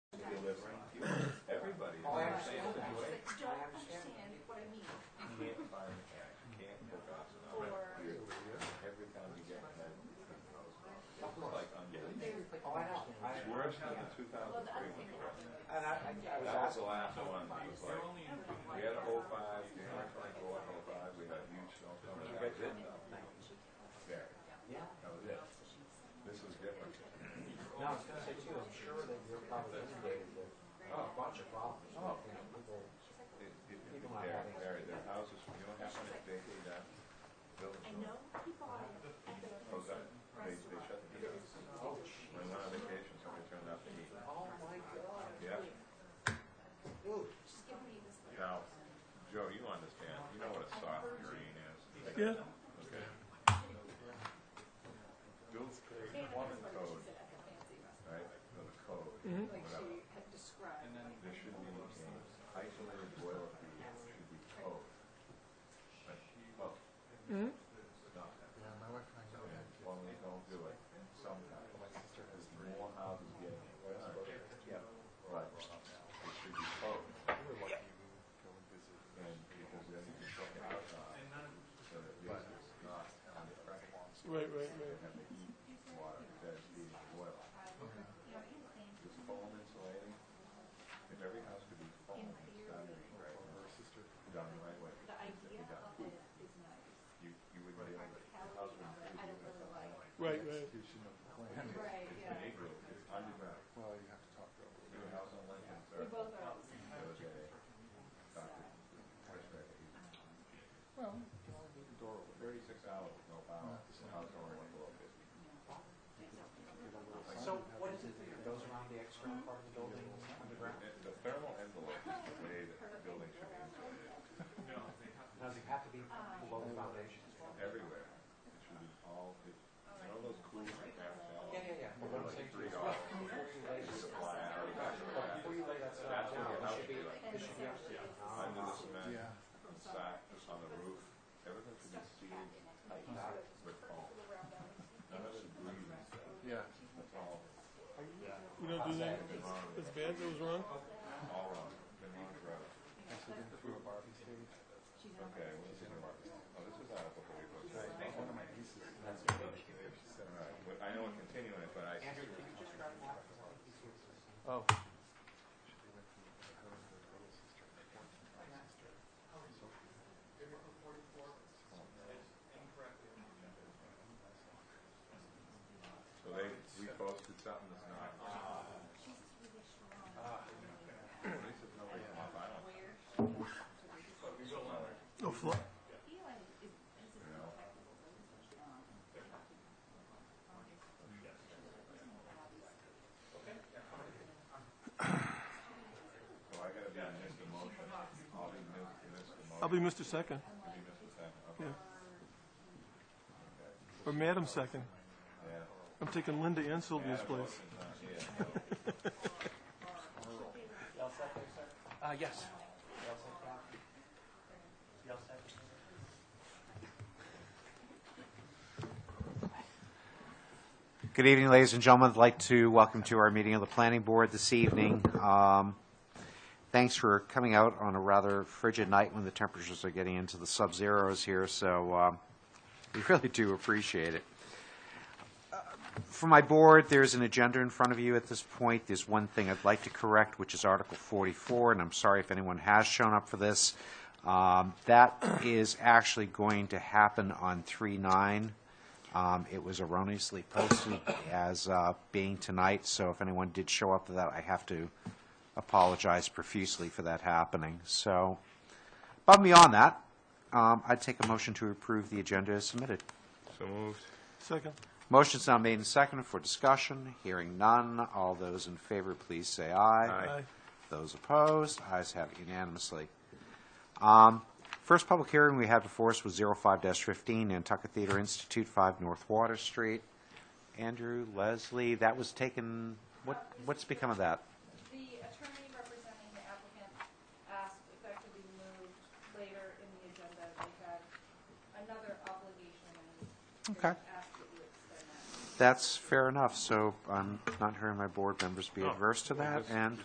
delivering fuel. Everybody is Oh, I in the same understand that. situation. But you don't understand what I mean, You can't buy a mechanic, you can't cook off or, an Every time you get that, it's like unbelievable. Oh, I know. I, It's worse than the 2003 well, the other when thing that you were happened, there. and I, I, I was That was the asking. last one. He was like, we had a whole five, we had a twenty-four, whole five, we had a huge snowstorm. and That was it though. There, Yeah. that was it. This was different. No, I was gonna say too. I'm sure that you're probably inundated with a bunch of problems. Oh. You know, people. It- it- it- There, there, their houses, you know how many they paid out? Buildings. I know he bought it at the Oh, that, fancy they, they restaurant. shut the heat off. Oh, shit. When we're on vacation, somebody turned off the heat. Oh my God. Yeah. Ooh. She's giving me this. look. Now, Joe, you understand, you know what a soft green is. Yeah. Okay. Bill's Code, And plumbing that's what she code, said at the fancy restaurant. right, the code, Like whatever. she had described. like, There should be a isolated boil fee, should be code. But, well, not that. Yeah, my wife and I go And ahead. plumbing don't do it, sometimes, my sister has more houses getting it. Yeah. But, it should be code, We were lucky we would go and visit. and because then you can check it out, uh, so that at least it's not under pressure. Right, right, right. have to heat water instead of heating the oil. It's foam insulating. If every house could be foam, it's done the right way. Her sister, Done the right way. The idea of it is nice. You, you would be able to. How house we would are, be I don't like really that. like. Right, right. execution of the plan. Right, It's an yeah. igloo. It's underground. Well, you have to talk to her. Your house on Lincoln We Circle. both are. There was a doctor, respect, he Well, you only need a door open. thirty-six hours, with no power, the house only went below fifty. Get a little sign So and have what it- is it that goes around the external part of the building underground? The the thermal envelope is the way that the building should be insulated. Does it have to be below the foundation? everywhere. It should be all, it, you know those cool NFL? Yeah, yeah, yeah. Well, what I'm saying too is, well, before you lay this, Fly out of well, before you lay that stuff That's what down, your it house should be, should be like. it should be upstairs. Under the cement, Yeah. the sack, on the roof, everything should be sealed tight with foam. None of it breathing stuff. Yeah. That's all, You don't do that? That's bad. That was wrong. all wrong. Been wrong forever. I said, didn't through a barbie stage. Okay, well, this is a Oh, this is out of the way. One of my nieces. All right, but I know it continuing, but I. Andrew, can you just grab that? It's Oh. So they reposted something that's not. Ah. At least it's nobody off island, No flood. Eli is, has a you know? So I gotta be on this emotion. I'll be mis- this emotion. I'll be Mr. Second You'll be Mr. Second, okay. Yeah. Okay. or Madam Second. Yeah. I'm taking Linda and Sylvia's Adam place. Wilson's not here, so Y'all set there, sir? Uh, yes. Y'all set down? Y'all set? Good evening, ladies and gentlemen. I'd like to welcome to our meeting of the Planning Board this evening. Um, Thanks for coming out on a rather frigid night when the temperatures are getting into the sub-zeros here, so um, we really do appreciate it. Uh, For my board, there's an agenda in front of you at this point. There's one thing I'd like to correct, which is Article 44, and I'm sorry if anyone has shown up for this. Um, That is actually going to happen on 3/9. Um, It was erroneously posted as uh, being tonight, so if anyone did show up for that, I have to apologize profusely for that happening. So, above and beyond that, um, I'd take a motion to approve the agenda as submitted. Second. Motion's now made and seconded for discussion. Hearing none. All those in favor, please say aye. Aye. Those opposed, ayes have it unanimously. Um, First public hearing we had before us was 05-15 Nantucket Theater Institute, 5 North Water Street. Andrew, Leslie, that was taken, what, what's become of that? The attorney representing the applicant asked if that could be moved later in the agenda. They had another obligation and they Okay. asked that you extend that. That's fair enough, so I'm not hearing my board members be adverse to that, and